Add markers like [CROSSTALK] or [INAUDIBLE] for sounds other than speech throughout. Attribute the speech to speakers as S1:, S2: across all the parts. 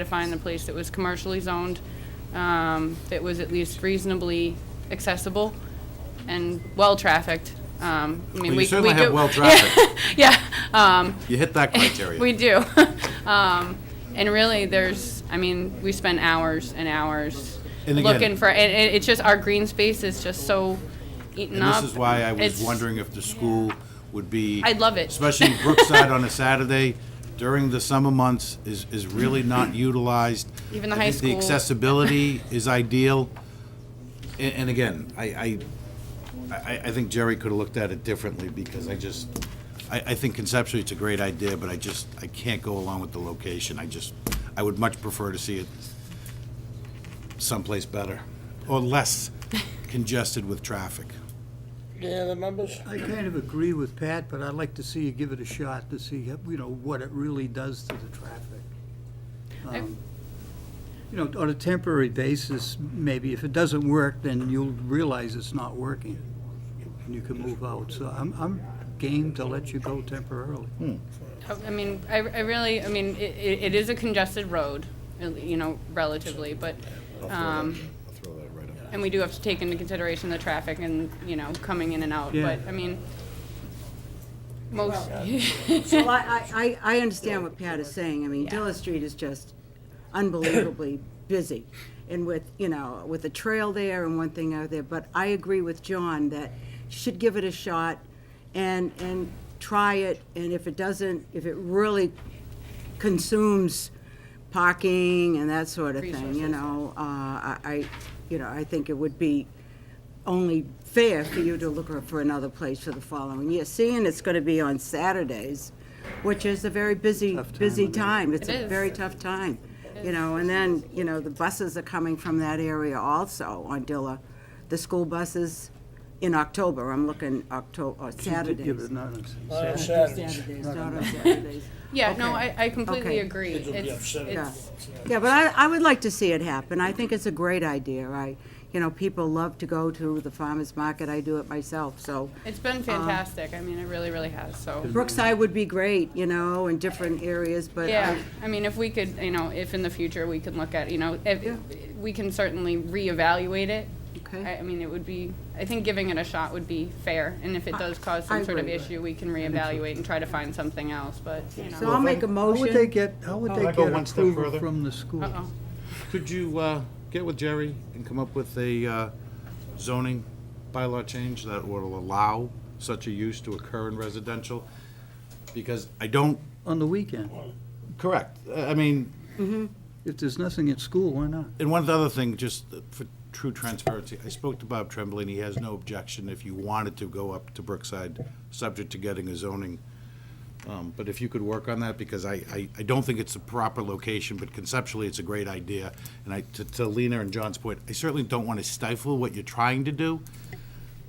S1: to find the place that was commercially zoned, um, that was at least reasonably accessible and well-trafficked. Um, I mean,
S2: Well,
S1: we-
S2: you certainly
S1: we
S2: have
S1: do- [LAUGHS]
S2: well traffic.
S1: Yeah, [LAUGHS] um,
S2: You hit that criteria.
S1: we do. [LAUGHS] Um, and really, there's, I mean, we spend hours and hours
S2: And again-
S1: looking for, and it, it's just, our green space is just so eaten
S2: And
S1: up.
S2: this is why I was
S1: It's-
S2: wondering if the school would be.
S1: I'd love it.
S2: Especially
S1: [LAUGHS]
S2: Brookside on a Saturday during the summer months is, is really
S1: [CLEARS THROAT]
S2: not utilized.
S1: Even the
S2: I
S1: high
S2: think The
S1: school. [LAUGHS]
S2: accessibility is ideal. A- And, again, I, I, I, I think Jerry could have looked at it differently because I just, I, I think conceptually it's a great idea, but I just, I can't go along with the location. I just, I would much prefer to see it someplace better or
S1: [LAUGHS]
S2: less congested with traffic.
S3: Any other members?
S4: I kind of agree with Pat, but I'd like to see you give it a shot to see, you know, what it really does to the traffic. Um, You know, on a temporary basis, maybe if it doesn't work, then you'll realize it's not working, and you can move out. So I'm, I'm game to let you go temporarily.
S1: I mean, I, I really, I mean, it, it is a congested road, you know, relatively, but, um,
S2: I'll throw that right up.
S1: and we do have to take into consideration the traffic and, you know, coming in and out,
S4: Yeah.
S1: but, I mean, most,
S5: Well, I, I, I I understand what Pat is saying. I mean, Dilla Street is just unbelievably busy. And with, you know, with the trail there and one thing out there, but I agree with John that you should give it a shot and, and try it. And if it doesn't, if it really consumes parking and that sort of thing, you know, uh, I, I, you know, I think it would be only fair for you to look for another place for the following year, seeing it's gonna be on Saturdays, which is a very busy,
S4: Tough time
S5: busy
S4: of the year.
S5: time. It's
S1: It
S5: a
S1: is.
S5: very tough time, you know, and then, you know, the buses are coming from that area also on Dilla. The school buses in October, I'm looking October, or
S4: Give it
S5: Saturdays.
S4: another-
S3: Uh, Saturdays.
S5: Saturdays, not on Saturdays.
S1: [LAUGHS] yeah, no, I, I completely
S5: Okay.
S1: agree.
S3: Kids will be
S1: It's,
S3: upset.
S5: Yeah,
S1: it's,
S5: Yeah, but I, I would like to see it happen. I think it's a great idea. I, you know, people love to go to the farmer's market. I do it myself, so.
S1: it's been fantastic, I mean, it really, really has, so.
S5: Brookside would be great, you know, in different areas, but. um, I-
S1: Yeah, I mean, if we could, you know, if in the future we can look at, you know, if, we can certainly reevaluate it.
S5: Okay.
S1: I, I mean, it would be, I think giving it a shot would be fair, and if it does cause
S5: I
S1: some sort of
S5: agree.
S1: issue, we can reevaluate and try to find something else, but, you
S5: So
S1: know.
S5: I'll make a
S4: How would they
S5: motion.
S4: get, how would
S2: Can I
S4: they
S2: go
S4: get
S2: one step
S4: approval
S2: further?
S4: from the school?
S1: Uh-oh,
S2: Could you uh, get with Jerry and come up with a uh, zoning bylaw change that will allow such a use to occur in residential? Because I don't,
S4: On the weekend?
S2: correct, Uh, I mean,
S4: If there's nothing at school, why not?
S2: and one other thing, just for true transparency, I spoke to Bob Tremblay, and he has no objection if you wanted to go up to Brookside, subject to getting a zoning. Um, But if you could work on that, because I, I, I don't think it's the proper location, but conceptually, it's a great idea. And I, to- to Lena and John's point, I certainly don't want to stifle what you're trying to do,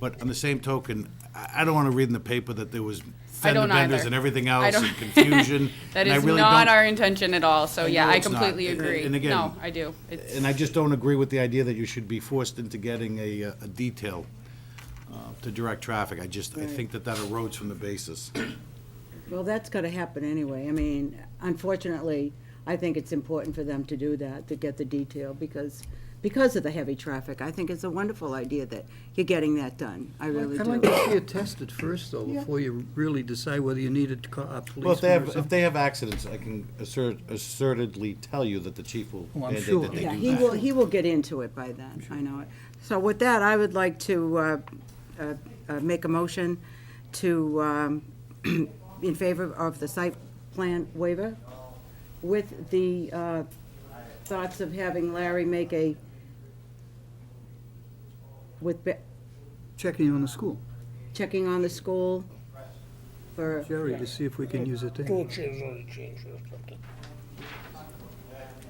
S2: but on the same token, I, I don't want to read in the paper that there was
S1: I
S2: fender
S1: don't either.
S2: benders and everything
S1: I
S2: else
S1: don't- [LAUGHS]
S2: and confusion.
S1: That
S2: and I
S1: is
S2: really
S1: not
S2: don't-
S1: our intention at all, so
S2: I
S1: yeah,
S2: know
S1: I
S2: it's not.
S1: completely
S2: And-
S1: agree.
S2: and again-
S1: No, I do. It's-
S2: And I just don't agree with the idea that you should be forced into getting a, uh, a detail uh, to direct traffic. I just, I think that that erodes from the basis.
S5: Well, that's gonna happen anyway. I mean, unfortunately, I think it's important for them to do that, to get the detail, because, because of the heavy traffic. I think it's a wonderful idea that you're getting that done. I really
S4: I'd like
S5: do.
S4: to see it tested first, though, before you really decide whether you need it to call a policeman
S2: Well, if they
S4: or
S2: have, if
S4: something.
S2: they have accidents, I can assert, assertedly tell you that the chief will
S4: Oh, I'm
S2: mandate
S4: sure.
S2: that they
S5: Yeah,
S2: do
S5: he will,
S2: that.
S5: he will get into it by then, I know it. So with that, I would like to uh, uh, uh, make a motion to, um, [CLEARS THROAT] in favor of the site plan waiver with the uh, thoughts of having Larry make a, with, be-
S4: Checking on the school,
S5: checking on the school for,
S4: Jerry, to see if we can use it there.
S3: Two chairs on the change or something.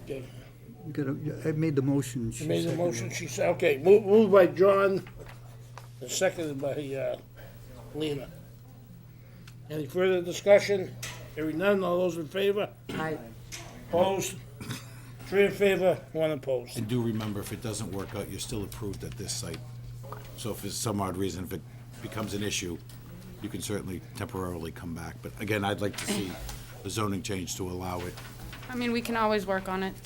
S3: Okay.
S4: You gotta- I made the motion.
S3: She
S4: she
S3: made the
S4: seconded
S3: motion,
S4: it.
S3: she said, okay, moved, moved by John, and seconded by, uh, Lena. Any further discussion? Hearing none, all those in favor?
S5: I,
S3: Opposed? Three in favor, one opposed.
S2: And do remember, if it doesn't work out, you're still approved at this site. So if for some odd reason, if it becomes an issue, you can certainly temporarily come back. But again, I'd like to see the zoning change to allow it.
S1: I mean, we can always work on it.